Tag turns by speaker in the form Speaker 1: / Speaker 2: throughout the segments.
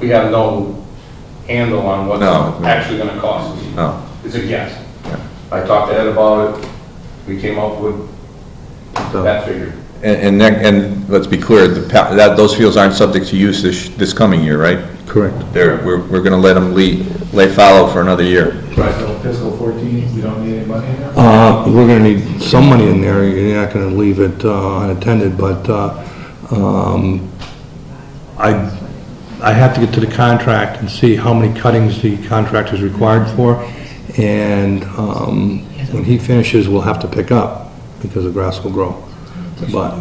Speaker 1: we have no handle on what
Speaker 2: No,
Speaker 1: it's
Speaker 2: no.
Speaker 1: actually gonna cost us.
Speaker 2: No.
Speaker 1: It's a guess.
Speaker 2: Yeah.
Speaker 1: I talked to Ed about it, we came up with that figure.
Speaker 2: And, and that- and let's be clear, the, pa- that, those fields aren't subject to use this, this coming year, right?
Speaker 3: Correct.
Speaker 2: They're, we're, we're gonna let them lay, lay fallow for another year.
Speaker 4: Right, so fiscal 14, we don't need any money in there?
Speaker 3: Uh, we're gonna need some money in there, you're not gonna leave it uh, unattended, but, uh, um, I, I have to get to the contract and see how many cuttings the contract is required for, and, um, when he finishes, we'll have to pick up, because the grass will grow. But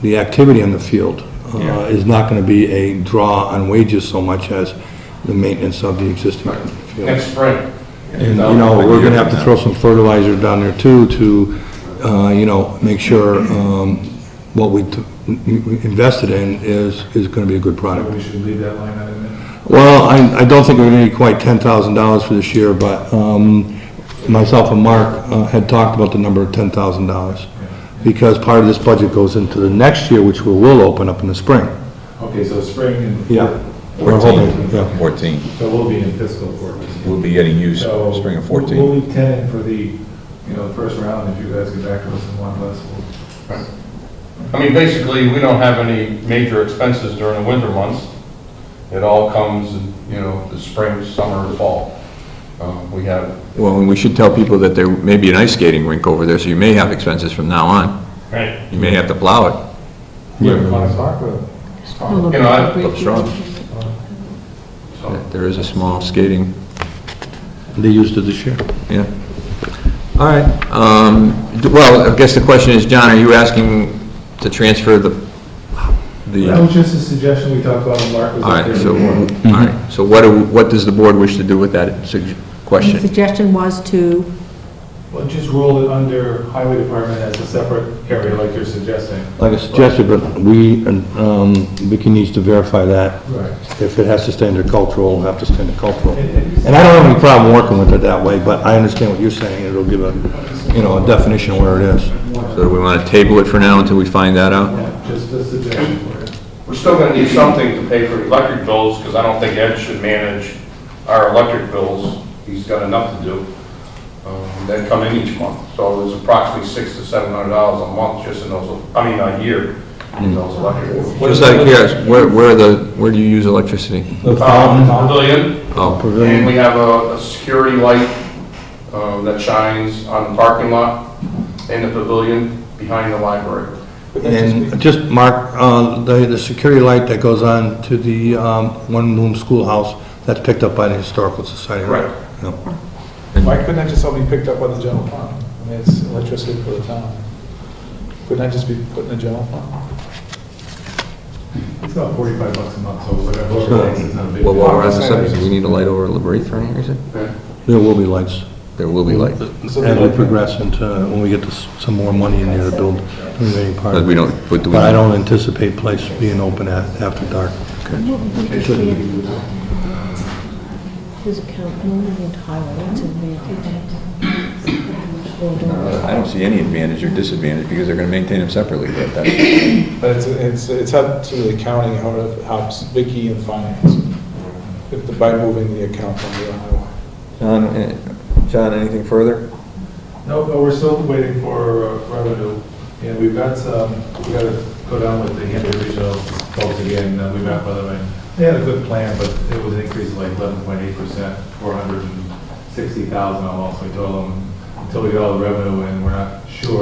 Speaker 3: the activity on the field uh,
Speaker 2: Yeah.
Speaker 3: is not gonna be a draw on wages so much as the maintenance of the existing field.
Speaker 1: Next spring.
Speaker 3: And,
Speaker 1: uh,
Speaker 3: you know, we're gonna have to throw some fertilizer down there too, to, uh, you know, make sure, um, what we t- we invested in is, is gonna be a good
Speaker 4: Maybe
Speaker 3: product.
Speaker 4: we should leave that line item in.
Speaker 3: Well, I, I don't think we're gonna need quite ten thousand dollars for this year, but, um, myself and Mark uh, had talked about the number of ten thousand dollars. Because part of this budget goes into the next year, which we will open up in the spring.
Speaker 4: Okay, so spring and.
Speaker 3: We're hoping, yeah.
Speaker 2: Fourteen.
Speaker 4: So we'll be in fiscal 14.
Speaker 2: We'll be getting used
Speaker 4: So
Speaker 2: spring of
Speaker 4: We'll
Speaker 2: fourteen.
Speaker 4: we'll leave 10 in for the, you know, the first round, if you guys get back to us in one less, we'll
Speaker 1: I mean, basically, we don't have any major expenses during the winter months. It all comes, you know, the spring, summer, fall. Um, We have,
Speaker 2: Well, and we should tell people that there may be an ice skating rink over there, so you may have expenses from now on.
Speaker 1: you
Speaker 2: You may have to plow
Speaker 4: Want to talk with
Speaker 5: Well,
Speaker 1: know, I-
Speaker 2: it up strong.
Speaker 1: so.
Speaker 2: There is a small skating,
Speaker 3: They used it this year.
Speaker 2: yeah. All right, um, d- well, I guess the question is, John, are you asking to transfer the,
Speaker 4: That
Speaker 2: the,
Speaker 4: was Oh, just a suggestion we talked about when Mark was
Speaker 2: all
Speaker 4: up
Speaker 2: right,
Speaker 4: there.
Speaker 2: so, all right, so what, do- what does the board wish to do with that sug-
Speaker 5: The
Speaker 2: question?
Speaker 5: suggestion was to,
Speaker 4: Well, just roll it under highway department as a separate area like you're suggesting.
Speaker 3: Like I suggested, but we, and, um, Vicky needs to verify that.
Speaker 4: Right.
Speaker 3: If it has to stay under cultural, it'll have to stay under cultural.
Speaker 4: And- and-
Speaker 3: And I don't have any problem working with it that way, but I understand what you're saying, it'll give a, you know, a definition of where it is.
Speaker 2: So do we want to table it for now until we find that out?
Speaker 4: Yeah, just a suggestion for it.
Speaker 1: We're still gonna need something to pay for electric bills, because I don't think Ed should manage our electric bills. He's got enough to do. Um, They come in each month, so it's approximately six to seven hundred dollars a month just in those, I mean, a year
Speaker 3: Hmm.
Speaker 1: in those electric bills.
Speaker 2: Just out of curiosity, where, where are the, where do you use electricity?
Speaker 3: The fountain,
Speaker 1: Um, Pavilion,
Speaker 2: Oh,
Speaker 1: And
Speaker 3: pavilion,
Speaker 1: we have a, a security light, um, that shines on the parking lot in the pavilion behind the library.
Speaker 3: and just, Mark, uh, the, the security light that goes on to the, um, one-room schoolhouse, that's picked up by the Historical Society, right?
Speaker 1: Right.
Speaker 3: Yeah.
Speaker 4: Why couldn't that just all be picked up by the general fund? I mean, it's electricity for the town. Couldn't that just be put in the general fund? It's about 45 bucks a month, so whatever, it is, it's not a big
Speaker 2: Well,
Speaker 4: deal.
Speaker 2: while we're on the subject, do we need a light over Lebrith for any reason?
Speaker 3: There will be lights.
Speaker 2: There will be light,
Speaker 3: As we progress into, uh, when we get this- some more money in there to build the remaining part.
Speaker 2: but we don't, but do we?
Speaker 3: But I don't anticipate place being open at, after dark.
Speaker 5: his account, no, we need highway, that's in
Speaker 2: I don't see any advantage or disadvantage, because they're gonna maintain them separately, but that's,
Speaker 6: But it's, it's, it's up to the accounting, how it helps Vicky and finance, if the- by moving the account from the highway.
Speaker 2: John, eh, John, anything further?
Speaker 4: No, but we're still waiting for uh, revenue, and we've got some, we gotta go down with the Hampton Regional folks again, uh, we met with them, and they had a good plan, but it was an increase of like eleven point eight percent, four hundred and sixty thousand almost, we told them, until we get all the revenue in, we're not sure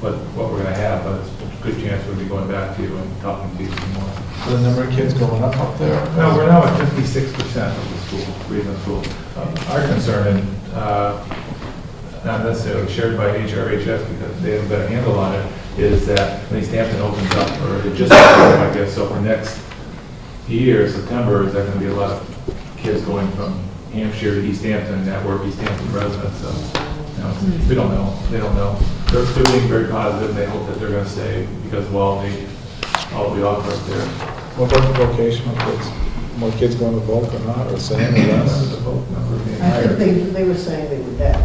Speaker 4: what, what we're gonna have, but it's a good chance we'll be going back to you and talking to you some more.
Speaker 6: The number of kids going up up there.
Speaker 4: No, we're now at fifty-six percent of the school, Greenland School. Um, Our concern, and uh, not necessarily shared by HRHS because they haven't got a handle on it, is that when East Hampton opens up, or it just, opened up, I guess, so for next year, September, is there going to be a lot of kids going from Hampshire to East Hampton that were East Hampton residents, so, you know,
Speaker 7: Hmm.
Speaker 4: it's- we don't know, they don't know. They're, they're being very positive, they hope that they're going to stay because of all the, all we offer up there.
Speaker 6: What about the vocational kids? More kids going to Volk or not, or same or less?
Speaker 7: I think they, they were saying they were dead.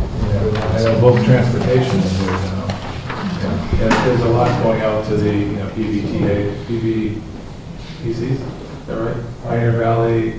Speaker 4: And both transportation is there now. Yeah, there's a lot going out to the, you know, PBTA, PB, PCs, is that right? Pioneer Valley,